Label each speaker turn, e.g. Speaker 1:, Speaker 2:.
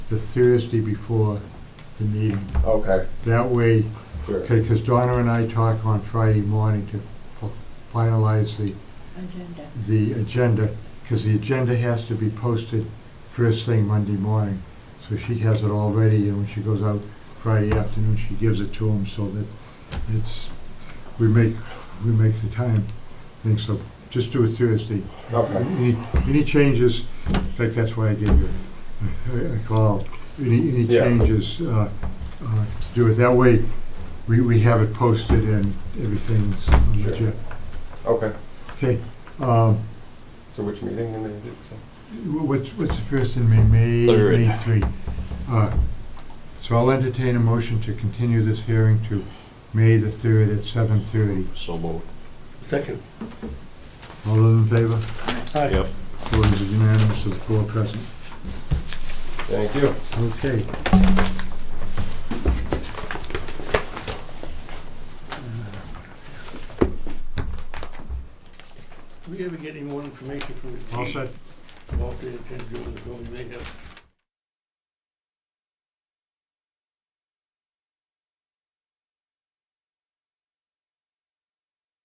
Speaker 1: the Thursday before the meeting.
Speaker 2: Okay,
Speaker 1: That way,
Speaker 2: sure.
Speaker 1: because Donna and I talk on Friday morning to f- finalize the,
Speaker 3: agenda.
Speaker 1: the agenda, because the agenda has to be posted first thing Monday morning. So she has it all ready, and when she goes out Friday afternoon, she gives it to them so that it's, we make, we make the time. And so just do it Thursday.
Speaker 2: Okay,
Speaker 1: Any, any changes, in fact, that's why I gave you a- a call. Any, any
Speaker 2: Yeah.
Speaker 1: changes, uh, uh, to do it that way, we, we have it posted and everything's on the
Speaker 2: Sure.
Speaker 1: jet.
Speaker 2: okay.
Speaker 1: Okay, um,
Speaker 2: So which meeting in the,
Speaker 1: wh- what's, what's the first in May? May?
Speaker 4: Third.
Speaker 1: May three. Uh, So I'll entertain a motion to continue this hearing to May the third at seven thirty.
Speaker 4: So moved.
Speaker 5: Second.
Speaker 1: All those in favor?
Speaker 4: Yep.
Speaker 1: Four is unanimous of four present.
Speaker 2: thank you.
Speaker 1: Okay.
Speaker 5: Do we ever get any more information from the
Speaker 1: All
Speaker 5: chief?
Speaker 1: set.
Speaker 5: Walter and Ted Drew, the building they have